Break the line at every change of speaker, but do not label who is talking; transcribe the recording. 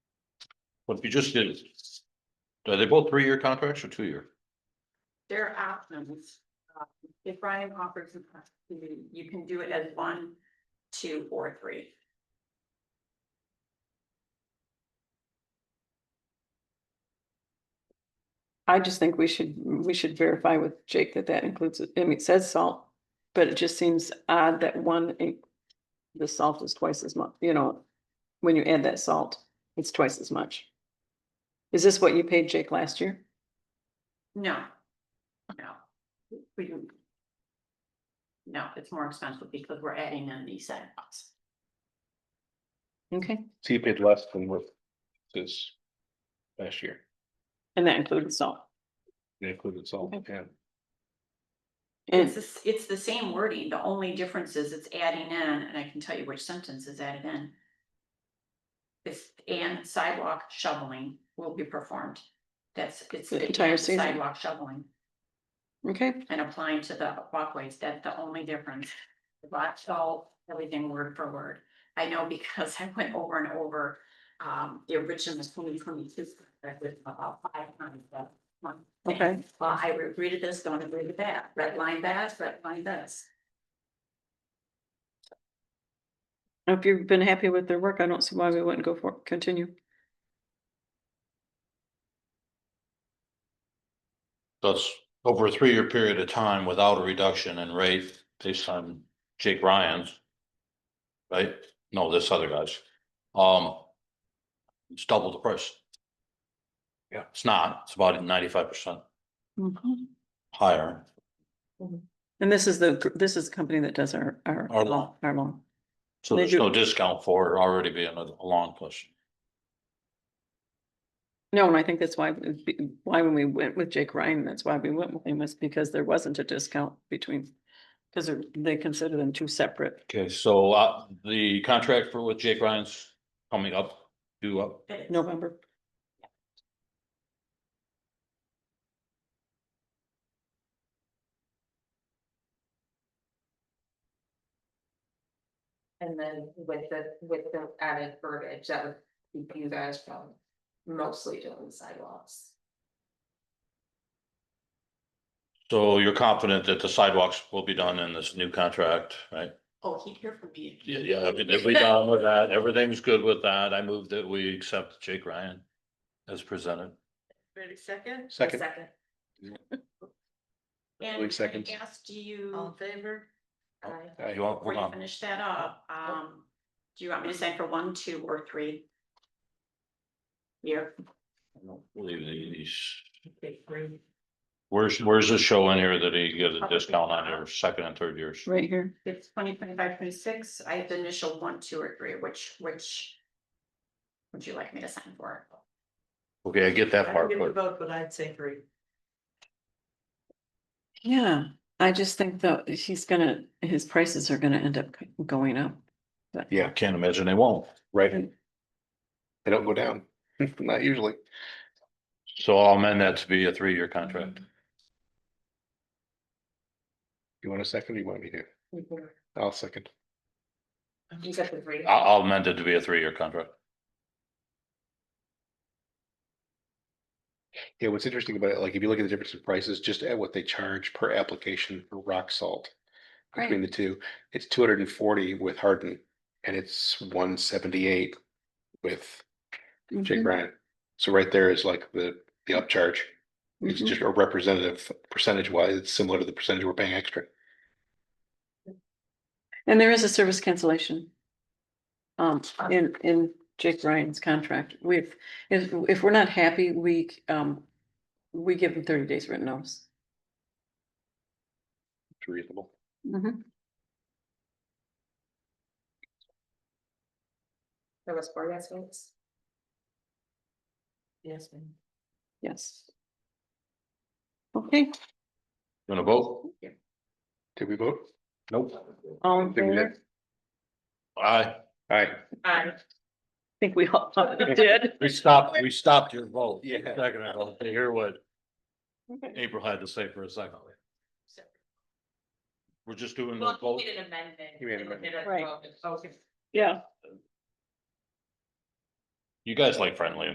Well, if you just did. Are they both three-year contracts or two-year?
There are options. Um, If Ryan offers, an opportunity, you can do it as one, two, or three.
I just think we should, we should verify with Jake that that includes, I mean, it says salt, but it just seems odd that one, in- the salt is twice as much, you know, when you add that salt, it's twice as much. Is this what you paid Jake last year?
No. No. We do. No, it's more expensive because we're adding in these sidewalks.
Okay.
So you paid less than what this last year,
And that included salt.
they included salt, yeah.
It's,
And,
the s- it's the same wording. The only difference is it's adding in, and I can tell you which sentence is added in. It's and sidewalk shoveling will be performed. That's, it's.
The
and
entire season.
Sidewalk shoveling.
okay,
and applying to the walkways, that's the only difference. Lot salt, everything word for word. I know because I went over and over, um, the original twenty twenty-two. About five times that one. thing.
Okay.
Well, I read this, don't agree with that, red line that, red line this.
if you've been happy with their work, I don't see why we wouldn't go for, continue.
That's over a three-year period of time without a reduction in rate based on Jake Ryan's. Right? No, this other guy's. Um. It's double the price. Yeah. It's not, it's about ninety-five percent
And
higher.
this is the, gr- this is the company that does our, our
Our
law, our law.
So
They
there's
do-
no discount for it already being a a long push.
No, and I think that's why, it'd be- why when we went with Jake Ryan, that's why we went with him was because there wasn't a discount between. Cause they're- they consider them two separate.
Okay, so uh the contract for with Jake Ryan's coming up, due up.
November,
And then with the, with the added verbiage, that would keep you guys from mostly doing sidewalks.
So you're confident that the sidewalks will be done in this new contract, right?
Oh, he'd hear from me.
Yeah, yeah, if if we done with that, everything's good with that. I move that we accept Jake Ryan as presented.
Ready, second?
Second,
Second.
And
Like
can
seconds.
I ask, do you,
favor?
Oh. Aye.
Uh, You want,
before
hold
you
on,
finish that up, um, do you want me to sign for one, two, or three? Here.
I don't believe these,
three.
where's, where's the show in here that he gives a discount on their second and third years?
right here.
It's twenty twenty-five, twenty-six, I have the initial one, two, or three, which, which would you like me to sign for?
Okay, I get that part, but
vote, but I'd say three.
Yeah, I just think though, he's gonna, his prices are gonna end up going up.
yeah, can't imagine they won't.
right. They don't go down, not usually.
So I'll amend that to be a three-year contract.
You want a second or you want me to? I'll second.
You got the three.
Ah.
I- I'll amend it to be a three-year contract.
Yeah, what's interesting about it, like if you look at the difference in prices, just at what they charge per application for rock salt. Between the two, it's two hundred and forty with Hardin and it's one seventy-eight with
Mm-hmm.
Jake
Mhm,
Ryan. So right there is like the, the upcharge. It's
Mm-hmm.
mhm.
just a representative percentage wise, it's similar to the percentage we're paying extra.
And there is a service cancellation. Um, in, in Jake Ryan's contract, we've, if, if we're not happy, we, um, we give them thirty days written notice.
It's reasonable.
Mm-hmm.
There was four yes votes. Yes.
Yes. Okay,
You wanna vote?
Did we vote?
Nope.
all in
Think we
favor?
did.
I
Aye.
Aye.
Aye.
think we all did.
We stopped, we stopped your vote.
Yeah.
Second, I don't hear what
Okay.
April had to say for a second. We're just doing the
Well, you
vote.
made an amendment.
Mm-hmm. You made an
and
amendment.
did a
Right.
vote. Okay.
Yeah.
You guys like friendly